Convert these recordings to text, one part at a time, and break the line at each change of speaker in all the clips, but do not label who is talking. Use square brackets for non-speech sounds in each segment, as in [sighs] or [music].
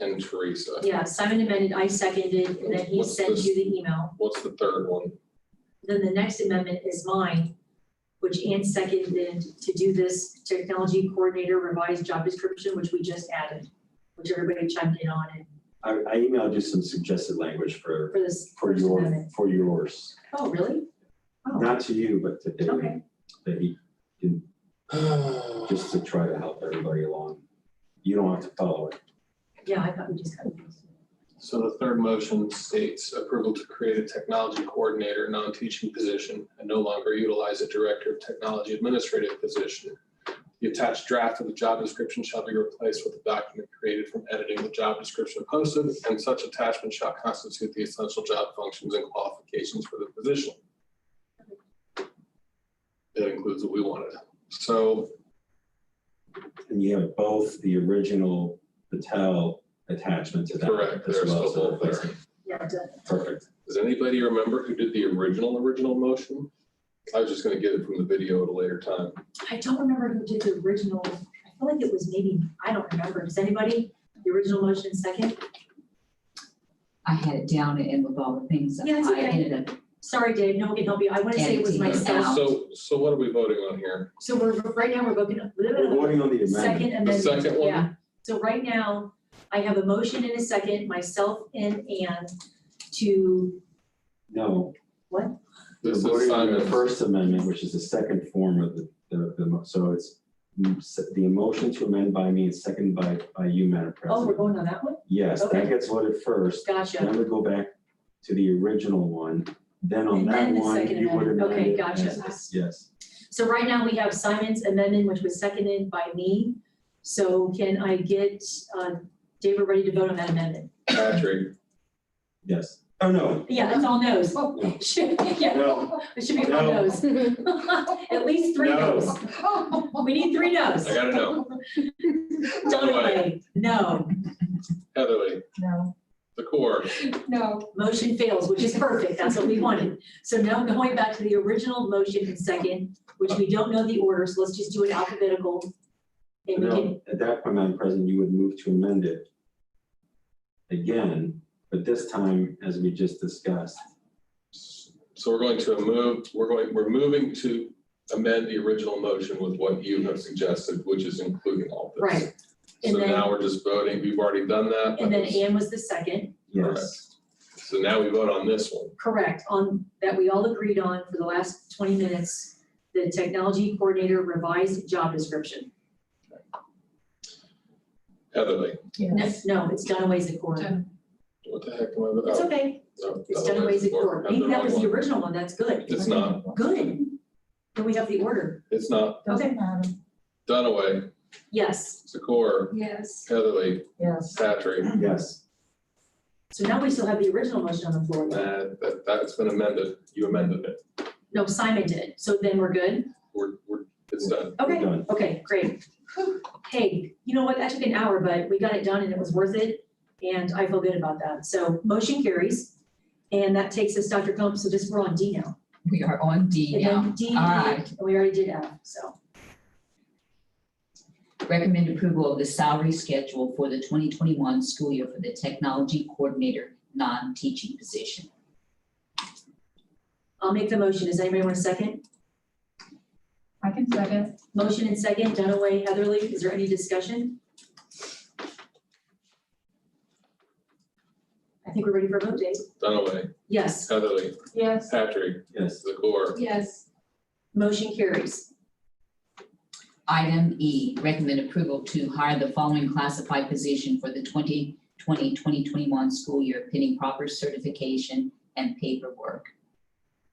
and Teresa.
Yeah, Simon amended, I seconded, and then he
What's
sent
this?
you the email.
What's the third one?
Then the next amendment is mine, which Ann seconded to do this technology coordinator revised job description, which we just added, which everybody chimed in on it
I, I emailed you some suggested language for,
for this
for
first
your,
amendment.
for yours,
Oh, really? Oh,
not to you, but to David,
Okay.
that he,
[sighs]
just to try to help everybody along. You don't have to follow it.
yeah, I thought we just got it.
So the third motion states approval to create a technology coordinator, non-teaching position, and no longer utilize a director of technology administrative position. The attached draft of the job description shall be replaced with a document created from editing the job description posted, and such attachment shall constitute the essential job functions and qualifications for the position. That includes what we wanted. So
And you have both the original Patel attachment to that.
Correct,
as
there's
well,
the
so
whole
that's
thing.
Yeah, it does.
Perfect.
Does anybody remember who did the original, original motion? I was just gonna get it from the video at a later time.
I don't remember who did the original. I feel like it was maybe, I don't remember. Does anybody, the original motion second?
I had it down and with all the things that
Yeah, it's
I
okay.
ended up,
Sorry, Dave, no one can help you. I want to say it was
Editing it
myself.
out.
So, so what are we voting on here?
So we're, right now, we're voting,
We're voting on the amendment.
second amendment.
second one?
Yeah, so right now, I have a motion and a second, myself and Ann, to,
No, we're
This is
voting on the
Simon's.
First Amendment, which is the second form of the, the, the mo- so it's mm, s- the motion to amend by me and second by, by you, Madam
oh, we're
President.
going on that one?
Yes, that
okay.
gets voted first.
Gotcha.
Then we go back to the original one, then on
And
that
then the
one,
second
you would
amendment.
amend
Okay,
it
gotcha.
as this, Yes,
So right now, we have Simon's amendment, which was seconded by me. So can I get, uh, David ready to vote on that amendment?
Patrick,
yes. Oh, no,
Yeah, that's all no's. Should, [laughs] yeah,
no,
it should be all
No.
no's. [laughs] At least three
No.
no's.
[laughs]
We need three no's.
I gotta
[laughs]
know.
Dunaway, no.
Heatherly,
No,
the core,
no,
Motion fails, which is perfect, that's what we wanted. So now going back to the original motion and second, which we don't know the order, so let's just do it alphabetical. And we can,
no. At that point, Madam President, you would move to amend it again, but this time, as we just discussed,
so we're going to move, we're going, we're moving to amend the original motion with what you have suggested, which is including all this.
Right.
So
And then-
now we're just voting, we've already done that.
and
That
then
was-
Ann was the second,
yes.
So now we vote on this one.
correct, on, that we all agreed on for the last twenty minutes, the technology coordinator revised job description.
Heatherly,
No,
yes.
no, it's Dunaway's accord.
what the heck am I? oh,
It's okay,
no,
it's
Dunaway's
Dunaway's accord.
I'm
Maybe that was
wrong
the
one.
original one, that's good,
It's not,
good. Then we have the order,
it's not
Doesn't matter,
Dunaway,
yes.
Secor,
yes,
Heatherly,
yes.
Patrick.
Yes,
So now we still have the original motion on the floor.
Nah, that, that's been amended. You amended it.
No, Simon did. So then we're good?
We're, we're, it's done.
we're
Okay,
done.
okay, great. Hey, you know what? That took an hour, but we got it done and it was worth it. And I feel good about that. So motion carries. And that takes us, Dr. Combs, so this, we're on D now.
we are on um, D
And
now.
then D, E,
All right.
and we already did F, so.
Recommend approval of the salary schedule for the 2021 school year for the technology coordinator, non-teaching position.
I'll make the motion. Does anybody want a second?
I can second,
Motion and second, Dunaway, Heatherly, is there any discussion? I think we're ready for a vote, Dave.
Dunaway,
Yes.
Heatherly,
yes,
Patrick,
yes.
Zakor,
yes,
Motion carries.
Item E, recommend approval to hire the following classified position for the 2020-2021 school year pending proper certification and paperwork.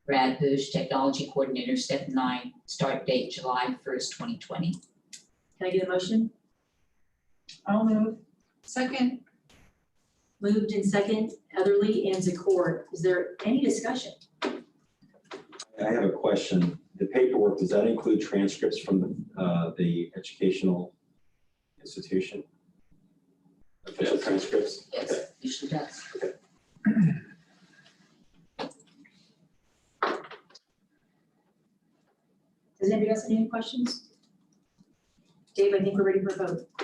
Brad Bush, Technology Coordinator, Step 9, start date July 1st, 2020.
Can I get a motion?
I'll move. Second,
Moved and second, Heatherly and Zakor. Is there any discussion?
I have a question. The paperwork, does that include transcripts from the, uh, the educational institution? Official
Yes.
transcripts? Okay.
Yes, usually does.
Does anybody else have any questions? Dave, I think we're ready for a vote.